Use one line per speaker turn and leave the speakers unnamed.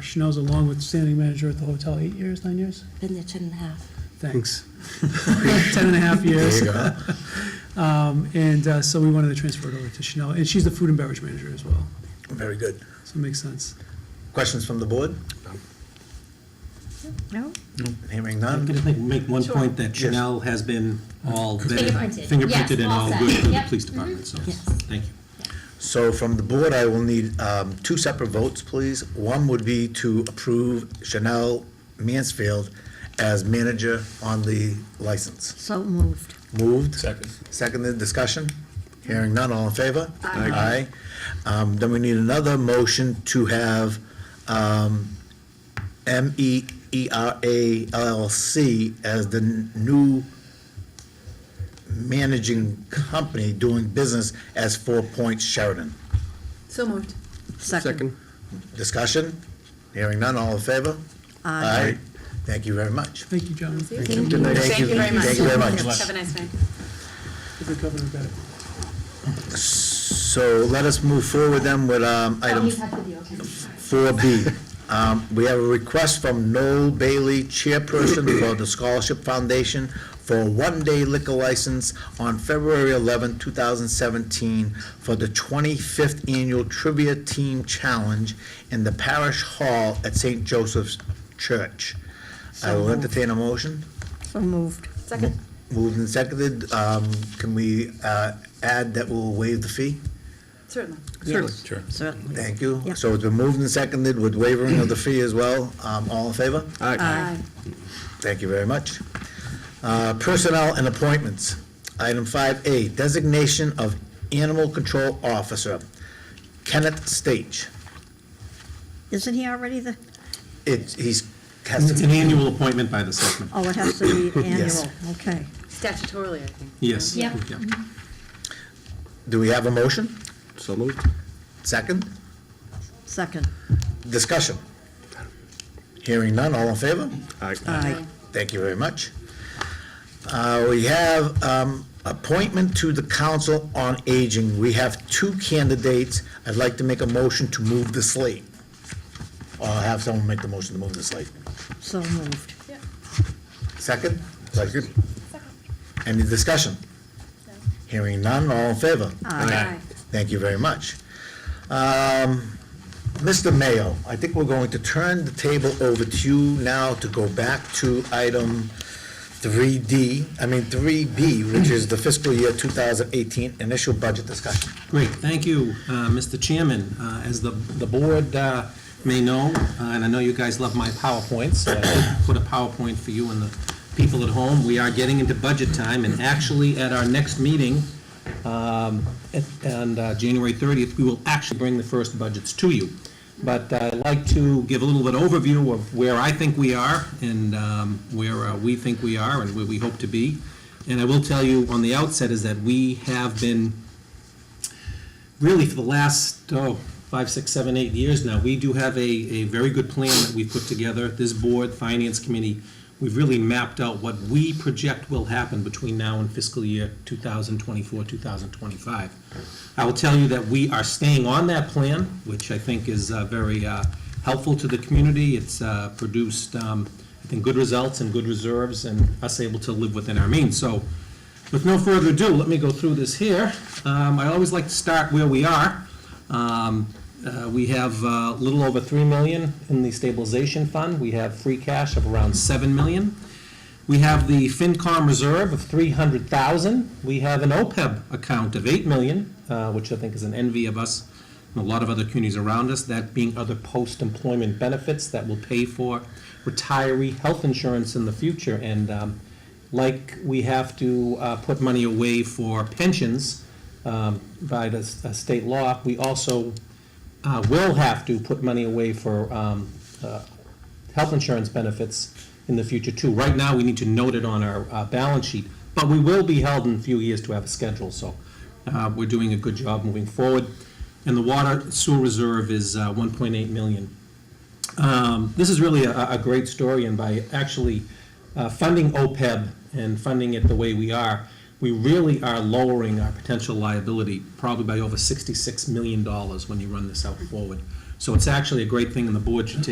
Chanel's a long standing manager at the hotel, eight years, nine years?
Been there ten and a half.
Thanks. Ten and a half years.
Hmm. There you go.
Um, And uh, so we wanted to transfer it over to Chanel, and she's the food and beverage manager as well,
Very good.
so it makes sense.
Questions from the board?
No?
Hearing
I'm
none?
going to make one
Sure.
point that
Yes.
Chanel has been all vetted.
Fingerprinted. Yes,
Fingerprinted and
all
all
set.
good for the
Yep. Mm-hmm.
police department, so,
Yes.
thank you.
So from the board, I will need um, two separate votes, please. One would be to approve Chanel Mansfield as manager on the license.
So moved.
Moved. Second. Seconded, discussion? Hearing none, all in favor? Aye. Um, Then we need another motion to have um, E MEERA LLC as the n- new managing company doing business as Four Points Sheridan.
So moved. Second.
Discussion? Hearing none, all in favor? Aye. Thank you very much.
Thank you, John. Thank
Thank you.
Thank you very much. Thank you very much.
Have a nice night.
you for covering that.
So let us move forward then with um,
Oh,
item
you have to be okay.
Four B, um, we have a request from Noel Bailey, chairperson for the Scholarship Foundation, for a one-day liquor license on February eleventh, two thousand seventeen, for the twenty-fifth annual trivia team challenge in the parish hall at Saint Joseph's Church. I will entertain a motion.
So moved. Second.
Moved and seconded, um, can we, uh, add that we'll waive the fee?
Certainly. Certainly. Certainly.
Thank you.
Yep.
So it's been moved and seconded with waiving of the fee as well. Um, all in favor?
Aye.
Thank you very much. Uh, Personnel and appointments. Item 5A, designation of animal control officer, Kenneth Stage.
Isn't he already the,
It's, he's, has
It's an
to,
annual appointment by the selectmen.
oh, it has to be
Yes.
annual, okay.
Statutorily, I think.
Yes.
Yep.
Yeah.
do we have a motion?
So moved.
Second?
Second.
Discussion? Hearing none, all in favor?
Aye.
Thank you very much. Uh, We have um, appointment to the Council on Aging. We have two candidates. I'd like to make a motion to move the slate. Or have someone make the motion to move the slate.
So moved.
Second? Second. Any discussion? Hearing none, all in favor?
Aye.
Thank you very much. Um, Mr. Mayo, I think we're going to turn the table over to you now to go back to item 3D, I mean 3B, which is the fiscal year 2018 initial budget discussion.
Great, thank you, uh, Mr. Chairman. Uh, As the, the board uh, may know, uh, and I know you guys love my PowerPoints, so I did put a PowerPoint for you and the people at home. We are getting into budget time, and actually, at our next meeting, um, at- and uh, January 30th, we will actually bring the first budgets to you. But uh, I'd like to give a little bit overview of where I think we are and um, where uh, we think we are and where we hope to be. And I will tell you on the outset is that we have been really for the last, oh, five, six, seven, eight years now, we do have a, a very good plan that we've put together. This board, finance committee, we've really mapped out what we project will happen between now and fiscal year 2024, 2025. I will tell you that we are staying on that plan, which I think is uh, very uh, helpful to the community. It's uh, produced, um, I think, good results and good reserves and us able to live within our means. So with no further ado, let me go through this here. Um, I always like to start where we are. Um, uh, We have uh, a little over 3 million in the stabilization fund. We have free cash of around 7 million. We have the FinCom reserve of 300,000. We have an OPEB account of 8 million, uh, which I think is an envy of us and a lot of other communities around us, that being other post-employment benefits that will pay for retiree health insurance in the future. And um, like we have to uh, put money away for pensions um, by the s- uh, state law, we also uh, will have to put money away for um, uh, health insurance benefits in the future too. Right now, we need to note it on our uh, balance sheet, but we will be held in a few years to have a schedule, so uh, we're doing a good job moving forward. And the water sewer reserve is uh, 1.8 million. Um, This is really a, a great story, and by actually uh, funding OPEB and funding it the way we are, we really are lowering our potential liability probably by over $66 million when you run this out forward. So it's actually a great thing, and the board should take